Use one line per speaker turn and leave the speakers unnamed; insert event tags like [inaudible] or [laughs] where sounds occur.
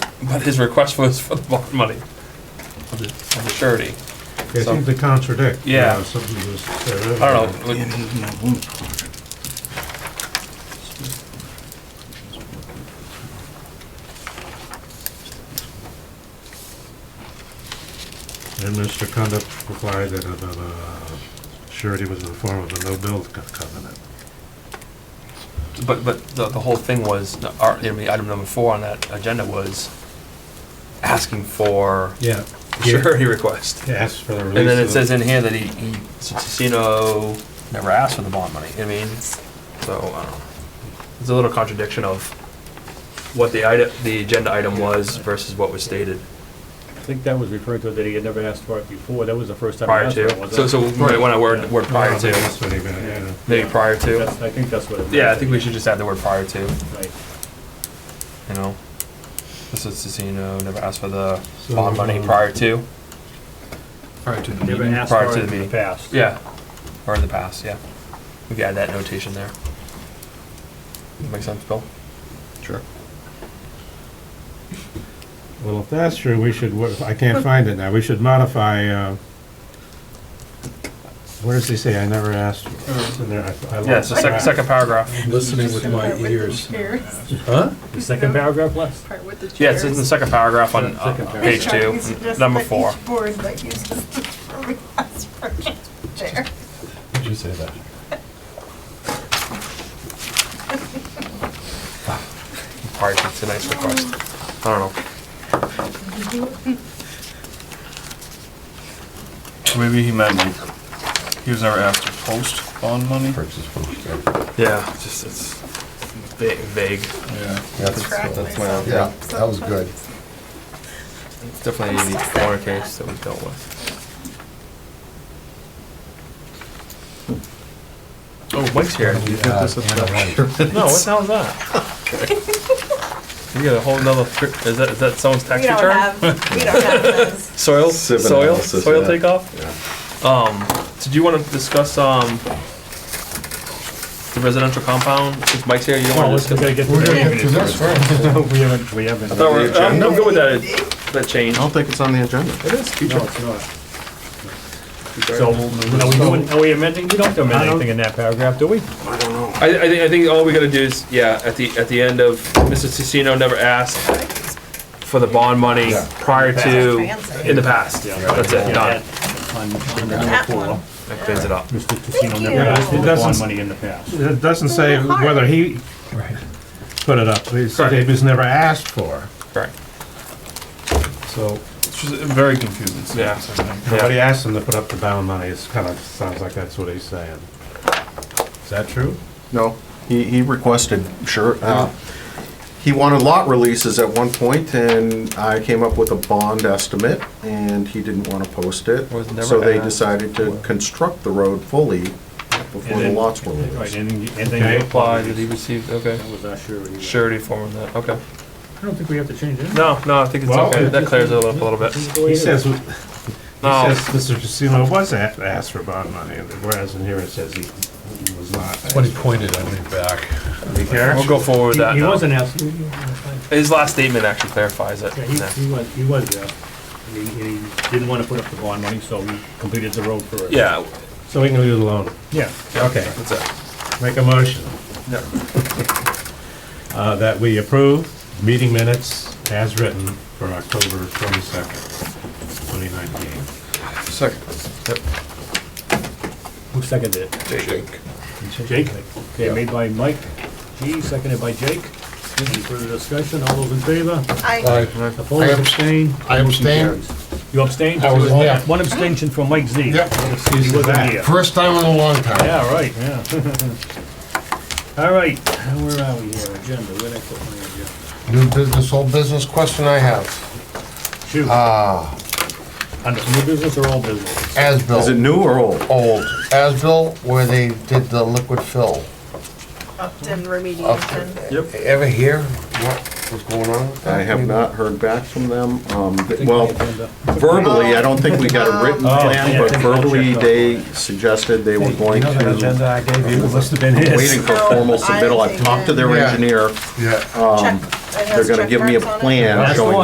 But his request was for the bond money, of the, of the surety.
Yeah,
So-
things that contradict. you
Yeah.
know, Something that was said earlier.
I don't know, like,
And Mr. Conduct replied that another surety was in the form of a no-build co- covenant.
But, but the, the whole thing was, our, I mean, item number four on that agenda was asking for
Yeah.
surety request.
Yes, for the release.
And then it
of-
says in here that he, he, Sino never asked for the bond money, I mean, so, I don't know. It's a little contradiction of what the item, the agenda item was versus what was stated
I think that was referred to that he had never asked for it before. That was the first time he
prior
asked for it,
to.
wasn't
So,
it?
so, right, when I word, word prior to,
That's what he meant, yeah.
maybe prior to.
That's- I think that's what it was.
Yeah, I think we should just add the word prior to,
Right.
you know? This is Sino never asked for the
So,
bond money
um,
prior to.
Prior to the
Never
meeting.
asked
prior
for
to the
it in the
meeting.
past.
Yeah, or in the past, yeah. We can add that notation there. Make sense, Bill?
Sure.
Well, if that's true, we should, wo- I can't find it now, we should modify, uh, what does he say, I never asked? It's in there, I- I
Uh-huh. Yeah, it's the second,
lost track.
second paragraph.
Listening with my ears.
[laughs]
Huh?
The second paragraph last?
Part with the chairs.
Yeah, it's in the second paragraph on uh,
Second paragraph.
page two, Mm, number four.
Each board that uses the three house version chair.
Did you say that?
Prior to tonight's request. I don't know.
Maybe he meant like, he was never asked to post bond money?
Purchase post, right?
Yeah, it's just, it's va- vague.
Yeah.
That's,
Track
that's my,
myself.
yeah, that was good.
It's definitely a unique corner case that we dealt with. Oh, Mike's here.
You get this at the-
No, what the hell is that? You got a whole nother, fr- is that, is that someone's tax
We
return?
don't have, we
[laughs]
don't have those.
Soil,
Sieve
soil,
analysis,
soil
yeah.
takeoff?
Yeah.
Um, did you wanna discuss, um, the residential compound, since Mike's here, you don't
Well,
wanna
let's, we
discuss?
gotta
it?
get to
to this
the. [laughs]
first.
We haven't, we haven't.
I thought we
The
we're, I'm, I'm good with that, that change.
I don't think it's on the agenda. It is.
No, it's not. So, are we doing, are we amending? We don't have to amend anything in that paragraph, do we?
I, I think, I think all we gotta do is, yeah, at the, at the end of, Mr. Tissino never asked for the bond money
Yeah.
prior to,
Fancy.
in the past. That's it, done.
That one.
That cleans it up.
Mr. Tassino
Thank
never
you.
asked for
It
the
doesn't
bond
s-
money in the past.
It doesn't say whether he put it up, it said it was never asked for,
Correct.
so
It's just very confusing.
Yeah.
sentence, I think.
nobody asked him to put up the bound money, it's kind of, sounds like that's what he's saying. Is that true?
No, he, he requested, sure. uh, He wanted lot releases at one point, and I came up with a bond estimate, and he didn't want to post it.
Was never
So they
asked.
decided to construct the road fully before the
then-
lots were
Right,
released.
and, and
Okay.
then you
Apply,
applied.
did he receive, okay.
That was our surety.
Surety form of that, okay.
I don't think we have to change it.
No, no, I think it's
Well,
okay, that
just-
clears it up a little bit.
He says, he says
No,
Mr. Casino was a- asked for bond money, whereas in here it says he he was not.
But he pointed at me back.
You care?
we'll go forward with that
He
now.
wasn't asked, he,
His last statement actually clarifies it.
he- he was, he was asked. And he, and he didn't wanna put up the bond money, so he completed the road for it.
Yeah,
So we can leave it alone.
Yeah.
Okay,
that's it.
make a motion
Yeah.
uh, that we approve meeting minutes as written for October 22nd, 2019.
Second.
Who seconded it?
Jake.
Jake? Okay, made by Mike G, seconded by Jake. Any further discussion? All those in favor?
I,
Opposed, abstained?
I abstain.
Carries. You abstained?
I was there.
One abstention from Mike Z.
Yep.
He wasn't here.
First time in a long time.
Yeah, right, yeah. [laughs] All right, where are we here? Agenda, where'd I put my agenda?
New business, old business question I have.
Shoot,
Ah.
Uh,
under new business or old business?
Is it
Asbill,
new or old?
old. Asbill, where they did the liquid fill.
Upton
Upton.
remediation.
Ever hear what was going on with that?
I have not heard back from them. Um, th- Well,
Agenda.
verbally, I don't think we got a written
Oh,
plan,
yeah,
but
take a
verbally,
check, no.
they suggested they were going to,
I gave you must have been
waiting for
No,
formal
I
submittal. I've
think
talked to
that-
their
Yeah.
engineer.
Yeah.
Check- it
Um, They're
has
gonna
check
give me a
marks on it.
plan
That's the
showing